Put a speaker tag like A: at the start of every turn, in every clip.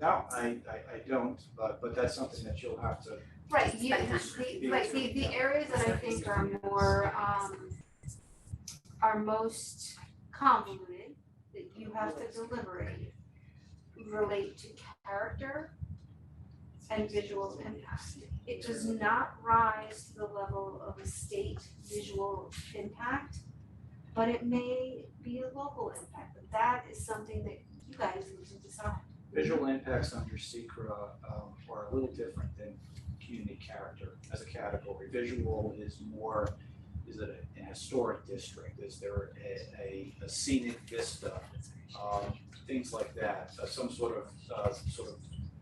A: No, I, I, I don't, but, but that's something that you'll have to,
B: Right, you,
C: Spend
B: the, right, the, the areas that I think are more, um, are most convoluted, that you have to deliberate, relate to character and visual impact. It does not rise to the level of a state visual impact, but it may be a local impact, but that is something that you guys need to decide.
A: visual impacts under secra um, are a little different than community character as a category. Visual is more, is it a- an historic district, is there a, a- a scenic vista? Um, things like that, uh, some sort of, uh, sort of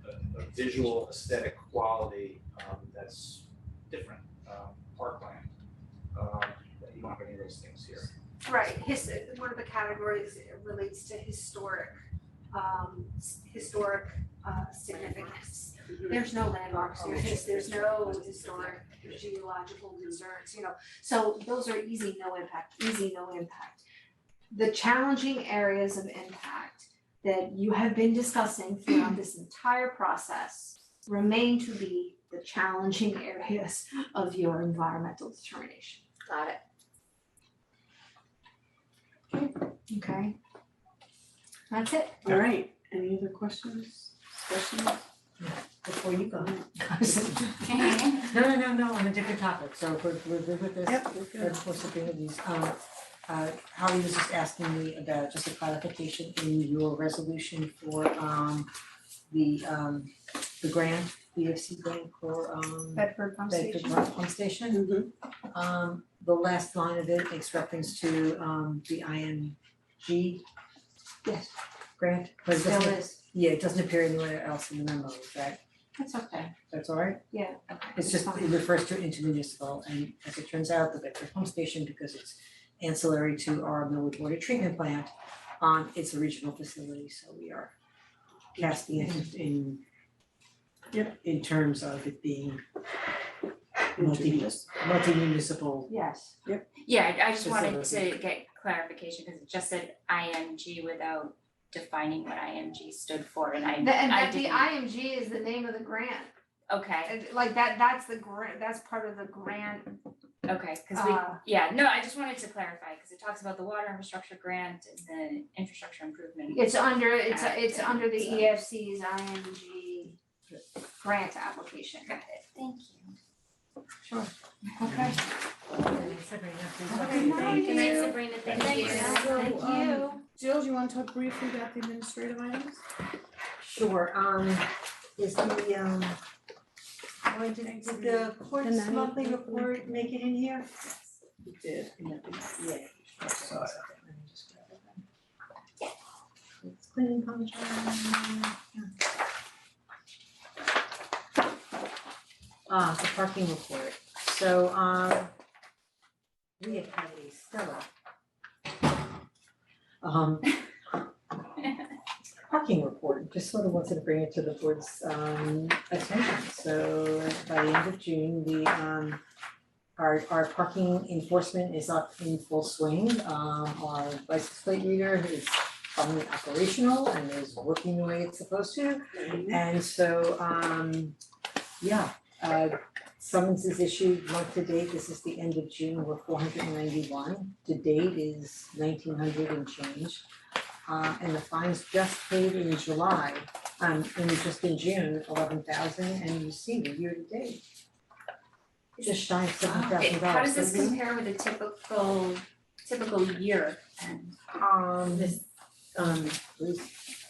A: uh, a, a visual aesthetic quality, um, that's different, um, parkland. Um, you don't have any of those things here.
B: Right, his, one of the categories relates to historic, um, s- historic, uh, significance. There's no landmarks, there's just, there's no historic geological reserves, you know, so those are easy, no impact, easy, no impact. The challenging areas of impact that you have been discussing throughout this entire process remain to be the challenging areas of your environmental determination.
C: Got it.
B: Okay. That's it.
D: All right, any other questions, questions?
E: before you go. No, no, no, no, on a different topic, so if we're we're good with this.
D: we're
E: We're supposed to bring with these, um, uh, Holly was just asking me about just a clarification in your resolution for, um, the, um, the grant, the EFC grant for, um,
B: Bedford pump
E: Bedford Rock Pump Station. Um, the last line of it makes reference to, um, the IMG. Yes. Grant, but it
B: Still
E: doesn't,
B: is.
E: yeah, it doesn't appear anywhere else in the memo, is that
B: That's okay.
E: that's all right?
B: Yeah.
E: It's just, it refers to intermunicipal, and as it turns out, the Bedford Pump Station, because it's ancillary to our Millwood Water Treatment Plant, um, it's a regional facility, so we are casting it in in terms of it being multi, multi-municipal,
B: Yes.
C: Yeah, I I just wanted
E: Facility.
C: to get clarification because it just said IMG without defining what IMG stood for and I
B: And that
C: I
B: the
C: didn't.
B: IMG is the name of the grant.
C: Okay,
B: And like that, that's the grant, that's part of the grant.
C: okay, cause we,
B: Uh,
C: yeah, no, I just wanted to clarify because it talks about the water infrastructure grant and the infrastructure improvement.
B: It's under, it's,
C: Act
B: it's
C: and
B: under the E
C: so-
B: EFC's IMG grant application.
C: Got it, thank you.
B: Sure. Okay.
E: Okay,
B: Thank
C: Good night,
B: you.
C: Sabrina, thank
B: Thank
C: you.
B: you.
D: So, um,
B: Thank you.
D: Jill, do you wanna talk briefly about the administrative items?
E: Sure, um, is the, um, why did, did the court's monthly report make it in here?
D: You did.
E: Yeah. It's cleaning contract. Ah, the parking report, so, um, we have had a stellar. Um. Parking report, just sort of wanted to bring it to the board's, um, attention, so by the end of June, the, um, our our parking enforcement is up in full swing. Um our license plate reader is finally operational and is working the way it's supposed to. And so um yeah, uh summons is issued month to date. This is the end of June. We're four hundred and ninety one. To date is nineteen hundred and change. Uh and the fines just paid in July, um in just in June, eleven thousand and you see the year to date just shy of seven
C: Wow.
E: thousand dollars.
C: How does this compare with a typical, typical year? And
E: Um, this,
F: This, um,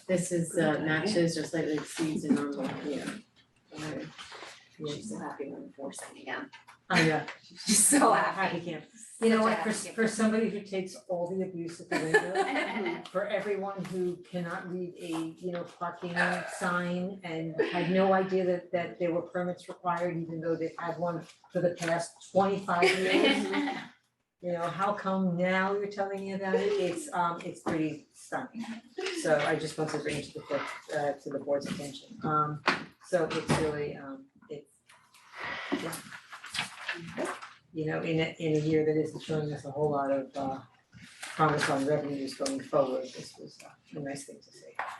F: this is uh, matches or slightly exceeds a normal year.
E: yeah,
F: happy when enforcing again.
E: I know,
C: She's so happy.
E: happy camp. You know what, for, for somebody who takes all the abuse at the window, for everyone who cannot read a, you know, parking sign and had no idea that, that there were permits required, even though they've had one for the past twenty-five years. You know, how come now you're telling me about it? It's, um, it's pretty stunning. So I just want to bring it to the court, uh, to the board's attention. Um, so it's really, um, it's, yeah. You know, in a, in a year that isn't showing us a whole lot of, uh, promise on revenues going forward, this was uh, a nice thing to see.